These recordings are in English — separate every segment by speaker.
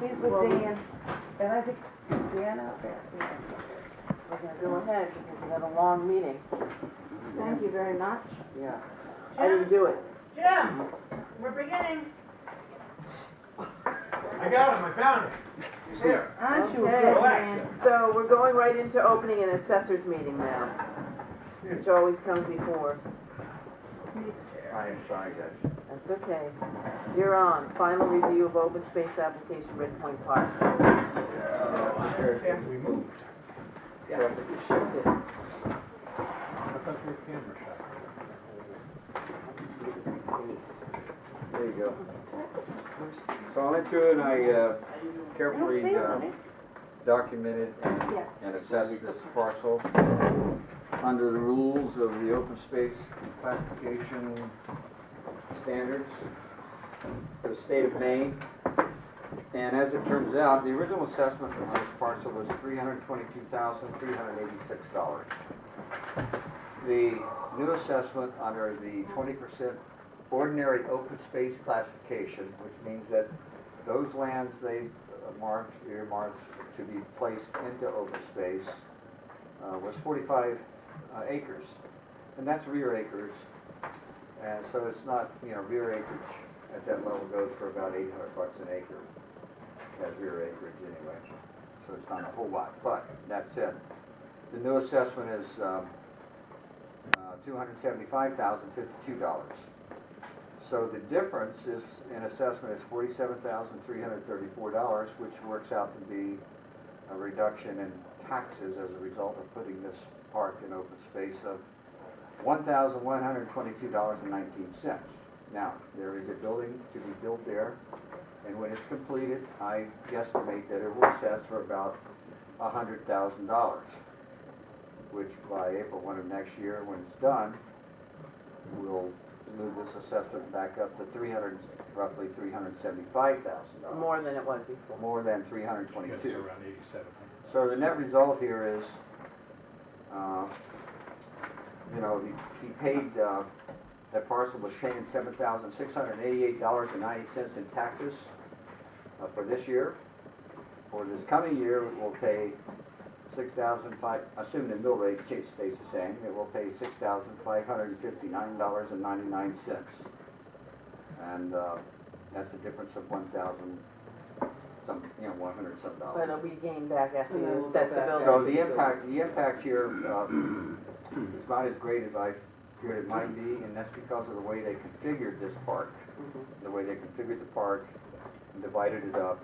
Speaker 1: Dan, and I think, is Dan out there?
Speaker 2: We're gonna go ahead because we had a long meeting.
Speaker 3: Thank you very much.
Speaker 2: Yes. I didn't
Speaker 4: Jim,
Speaker 2: do it.
Speaker 4: Jim, we're beginning.
Speaker 5: I got him, I found him. He's here.
Speaker 3: Aren't you a
Speaker 2: Okay.
Speaker 3: good man?
Speaker 2: So we're going right into opening an assessors meeting now, which always comes before.
Speaker 5: I am sorry, guys.
Speaker 2: That's okay. You're on. Final review of open space application Red Point Park.
Speaker 5: After we moved.
Speaker 2: Yes, you shifted.
Speaker 5: I thought your camera shot.
Speaker 6: There you go. So I went through and I uh, carefully uh, documented and
Speaker 3: Yes.
Speaker 6: and assessed this parcel under the rules of the open space classification standards for the state of Maine. And as it turns out, the original assessment on this parcel was three hundred twenty-two thousand, three hundred eighty-six dollars. The new assessment under the twenty percent ordinary open space classification, which means that those lands they marked, earmarked to be placed into open space, uh, was forty-five uh, acres. And that's rear acres, and so it's not, you know, rear acreage at that level goes for about eight hundred bucks an acre. That rear acreage anyway, so it's not a whole lot, but that said, the new assessment is, um, uh, two hundred seventy-five thousand fifty-two dollars. So the difference is, in assessment, is forty-seven thousand three hundred thirty-four dollars, which works out to be a reduction in taxes as a result of putting this park in open space of one thousand one hundred twenty-two dollars and nineteen cents. Now, there is a building to be built there, and when it's completed, I guesstimate that it will assess for about hundred thousand dollars, which by April one of next year, when it's done, will move this assessment back up to three hundred, roughly three hundred seventy-five thousand dollars,
Speaker 2: More than it was before.
Speaker 6: more than three hundred
Speaker 5: Yes,
Speaker 6: twenty-two.
Speaker 5: around eighty-seven hundred.
Speaker 6: So the net result here is, uh, you know, he he paid, uh, that parcel was paying seven thousand six hundred and eighty-eight dollars and ninety cents in taxes uh, for this year. For this coming year, it will pay six thousand five, assume the mill rate cha- stays the same, it will pay six thousand five hundred and fifty-nine dollars and ninety-nine cents. And uh, that's a difference of one thousand, some, you know, one hundred some dollars.
Speaker 2: But we gained back after
Speaker 1: Yeah,
Speaker 2: you
Speaker 1: we'll
Speaker 2: assessed
Speaker 1: go
Speaker 2: the
Speaker 1: back.
Speaker 2: building.
Speaker 6: So the impact, the impact here uh, is not as great as I feared it might be, and that's because of the way they configured this park. The way they configured the park, and divided it up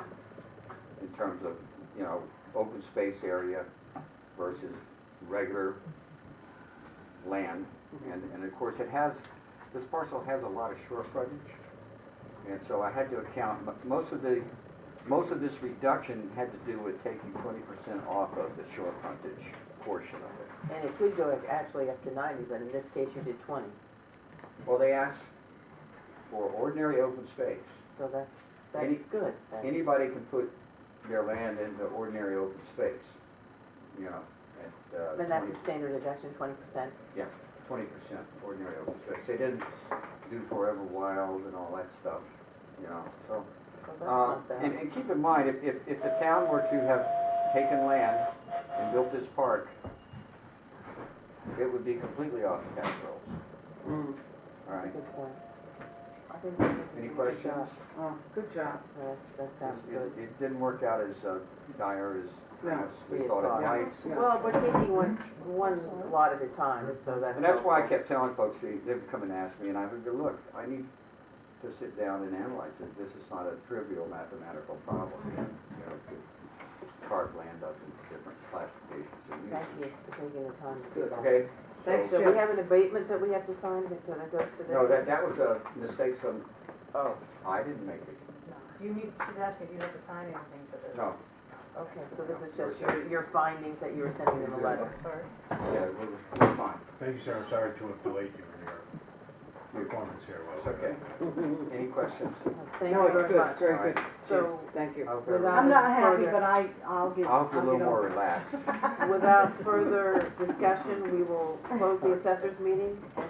Speaker 6: in terms of, you know, open space area versus regular land. And, and of course, it has, this parcel has a lot of shore frontage, and so I had to account, mo- most of the most of this reduction had to do with taking twenty percent off of the shore frontage portion of it.
Speaker 2: And it could go actually up to ninety, but in this case you did twenty,
Speaker 6: Well, they asked for ordinary open space.
Speaker 2: so that's,
Speaker 6: Any-
Speaker 2: that's good. then.
Speaker 6: Anybody can put their land into ordinary open space, you know, at uh,
Speaker 2: And
Speaker 6: twenty
Speaker 2: that's a standard deduction, twenty percent.
Speaker 6: percent ordinary open space. They didn't do forever wild and all that stuff, you know, so.
Speaker 2: So that's
Speaker 6: Uh,
Speaker 2: not bad.
Speaker 6: And, and keep in mind, if, if, if the town were to have taken land and built this park, it would be completely off the tax rolls. All right,
Speaker 2: Good point. I think we did a
Speaker 6: any
Speaker 2: good
Speaker 6: questions?
Speaker 2: job.
Speaker 1: Oh, good job.
Speaker 2: Yes, that sounds
Speaker 6: It-
Speaker 2: good.
Speaker 6: It it didn't work out as uh, dire as
Speaker 1: No.
Speaker 6: perhaps we
Speaker 2: We had
Speaker 6: thought
Speaker 2: thought.
Speaker 6: it might.
Speaker 1: Yeah.
Speaker 2: Well, we're taking one, one lot at a time, so that's.
Speaker 6: And that's why I
Speaker 2: helpful.
Speaker 6: kept telling folks, they, they would come and ask me, and I would go, look, I need to sit down and analyze it. This is not a trivial mathematical problem, you know, to carve land up into different classifications and uses.
Speaker 2: Thank you for taking the time to do that.
Speaker 6: Okay?
Speaker 1: Thanks,
Speaker 2: So
Speaker 1: Jim.
Speaker 2: we have an abatement that we have to sign that that goes to this?
Speaker 6: No, that, that was a mistake, so
Speaker 2: Oh,
Speaker 6: I didn't make it.
Speaker 4: You need, she's asking if you have to sign anything for this.
Speaker 6: No.
Speaker 2: okay, so this is just your, your findings that you were sending them a letter.
Speaker 4: Sorry.
Speaker 6: Yeah, we're, we're fine.
Speaker 5: Thank you, sir, I'm sorry to have delayed you in your performance here,
Speaker 6: It's
Speaker 5: Will.
Speaker 6: okay. Any questions?
Speaker 2: Thank
Speaker 1: Mm-hmm. No,
Speaker 2: you
Speaker 1: it's
Speaker 2: very
Speaker 1: good,
Speaker 2: much.
Speaker 1: very good.
Speaker 2: So-
Speaker 1: Jim, Thank you.
Speaker 6: I'll be-
Speaker 2: Without-
Speaker 3: I'm not happy,
Speaker 2: Further.
Speaker 3: but I, I'll give.
Speaker 6: I'll be a little
Speaker 3: give
Speaker 6: more
Speaker 3: up.
Speaker 6: relaxed.
Speaker 2: Without further discussion, we will close the assessors meeting and